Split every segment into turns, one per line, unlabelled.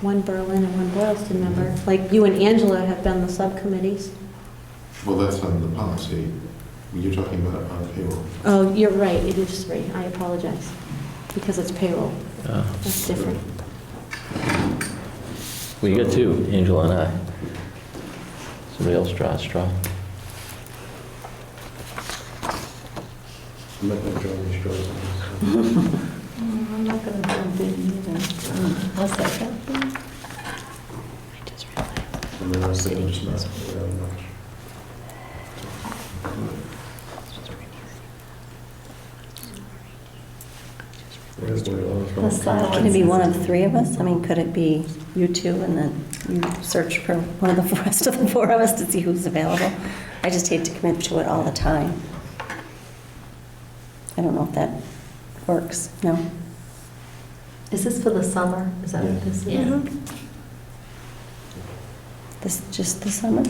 one Berlin and one Boylston member. Like you and Angela have been the subcommittees.
Well, that's on the policy. You're talking about on payroll.
Oh, you're right, it is three, I apologize, because it's payroll,
Uh,
that's different.
Well, you got two, Angela and I. Somebody else draw a straw.
I'm not going to draw any straws on this.
Mm, I'm not going to jump in either. I'll second.
And then I think I'm just not around much. Where's the law from?
The silence.
Can it be one of three of us? I mean, could it be you two and then you search for one of the rest of the four of us to see who's available? I just hate to commit to it all the time. I don't know if that works, no?
Is this for the summer? Is that what this is?
Yeah. Mm-hmm. This, just the summer?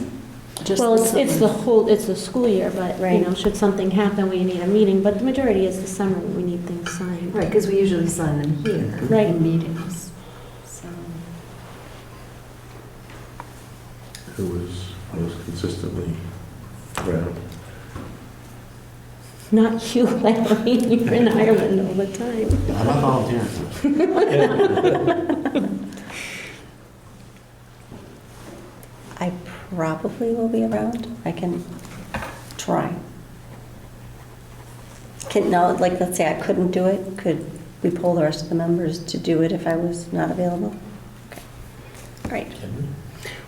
Just
Well, it's,
the
it's the
summer.
whole, it's the school year, but, you
Right.
know, should something happen, we need a meeting, but the majority is the summer, we need things signed.
Right, because we usually sign them here.
Right.
In meetings. So,
Who was most consistently around?
Not you, Eileen, you're in Ireland all the time.
I'm not volunteering.
I probably will be around. I can try. Can, now, like, let's say I couldn't do it, could we poll the rest of the members to do it if I was not available? Okay. All right.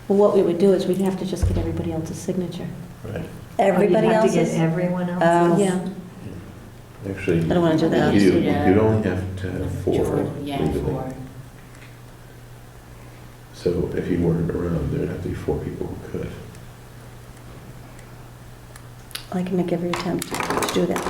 Well, what we would do is we'd have to just get everybody else's signature.
Right.
Everybody
Oh,
else
you have to get
is,
everyone
Oh.
else's?
Yeah,
Actually,
I don't want to do that.
you, you'd only have to have four
Yeah,
legally.
four.
So if you weren't around, there'd have to be four people who could.
I can make every attempt to do that.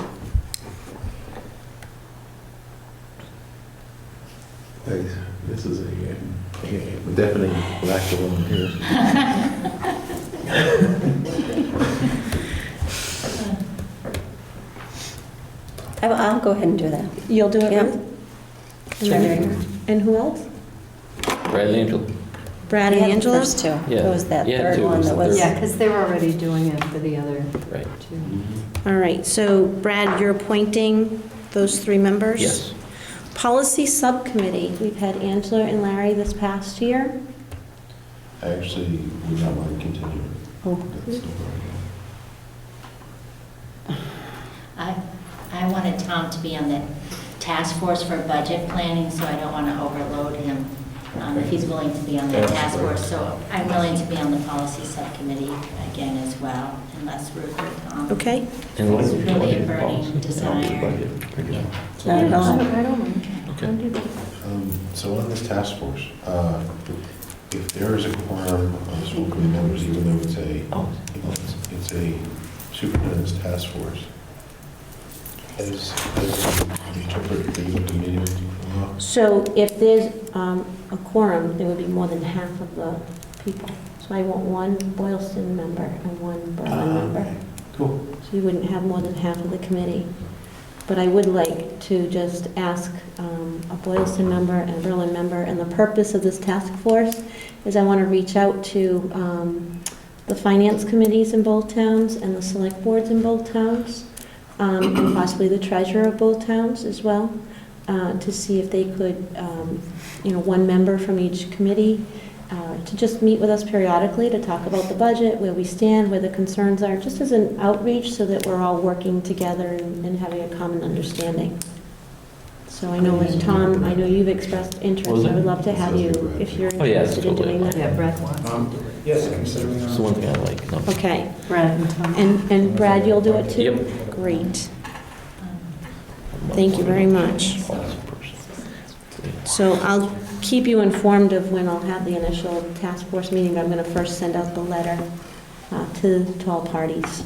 Like, This is a uh, a deafening lack of volunteers.
I- I'll go ahead and do that.
you'll do it,
Yeah.
Ruth? And
Sure.
then- And who else?
Bradley, Angela?
Brad
We
and
had the
Angela?
First two. It
Yeah.
was that
Yeah,
third
two
one
was
that
the
was,
Yeah, because they're already doing it for the other
Right.
two.
Mm-hmm.
All right, so Brad, you're appointing those three members?
Yes.
Policy Subcommittee, we've had Angela and Larry this past year.
I actually would not want to continue.
Oh,
That's no problem.
I, I wanted Tom to be on the task force for budget planning, so I don't want to overload him. Um, If he's willing to be on the
Yeah,
task
sure.
force, so I'm willing to be on the policy subcommittee again as well, unless Ruth or Tom.
Okay,
And what
It's
are we
really
talking
a burning
policy? Oh,
desire.
budget.
Yeah.
not
Oh,
at all.
Okay.
Um, So on this task force, uh, if there is a quorum of school committee members, even though it's a,
Oh,
it's it's a superintendent's task force, as, as we interpret the open meeting law,
so if there's um, a quorum, there would be more than half of the people. So I want one Boylston member and one Berlin
Ah,
member.
okay. Cool.
So you wouldn't have more than half of the committee. But I would like to just ask um, a Boylston member and a Berlin member, and the purpose of this task force is I want to reach out to um, the finance committees in both towns and the select boards in both towns, um, and possibly the treasurer of both towns as well, uh, to see if they could, um, you know, one member from each committee, uh, to just meet with us periodically to talk about the budget, where we stand, where the concerns are, just as an outreach so that we're all working together and and having a common understanding. So I know, like, Tom, I know you've expressed interest.
Was
I would
it?
love to have you if you're
Oh, yeah,
interested in doing
totally.
that.
Yeah, Brett wants. to do it.
Yes, considering.
It's the one thing I like. no.
Okay,
Brett and Tom.
and, and Brad, you'll do it too?
Yep.
Great,
Um,
thank you very much.
Policy person.
So I'll keep you informed of when I'll have the initial task force meeting, but I'm going to first send out the letter uh, to, to all parties,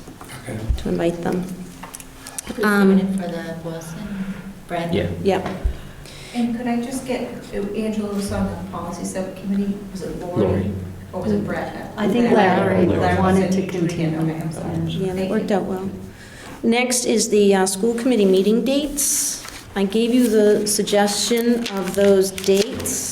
to invite them.
Who's
Um,
doing it for the Boylston? Brad?
Yeah.
Yep,
And could I just get, uh, Angela was on the policy subcommittee, was it Lori?
Lori.
Or was it Brett?
I think
Larry
Larry
Larry.
wanted to
Said you do it again.
continue.
Okay, I'm sorry.
yeah, that
Thank
worked
you.
out well. Next is the uh, school committee meeting dates. I gave you the suggestion of those dates.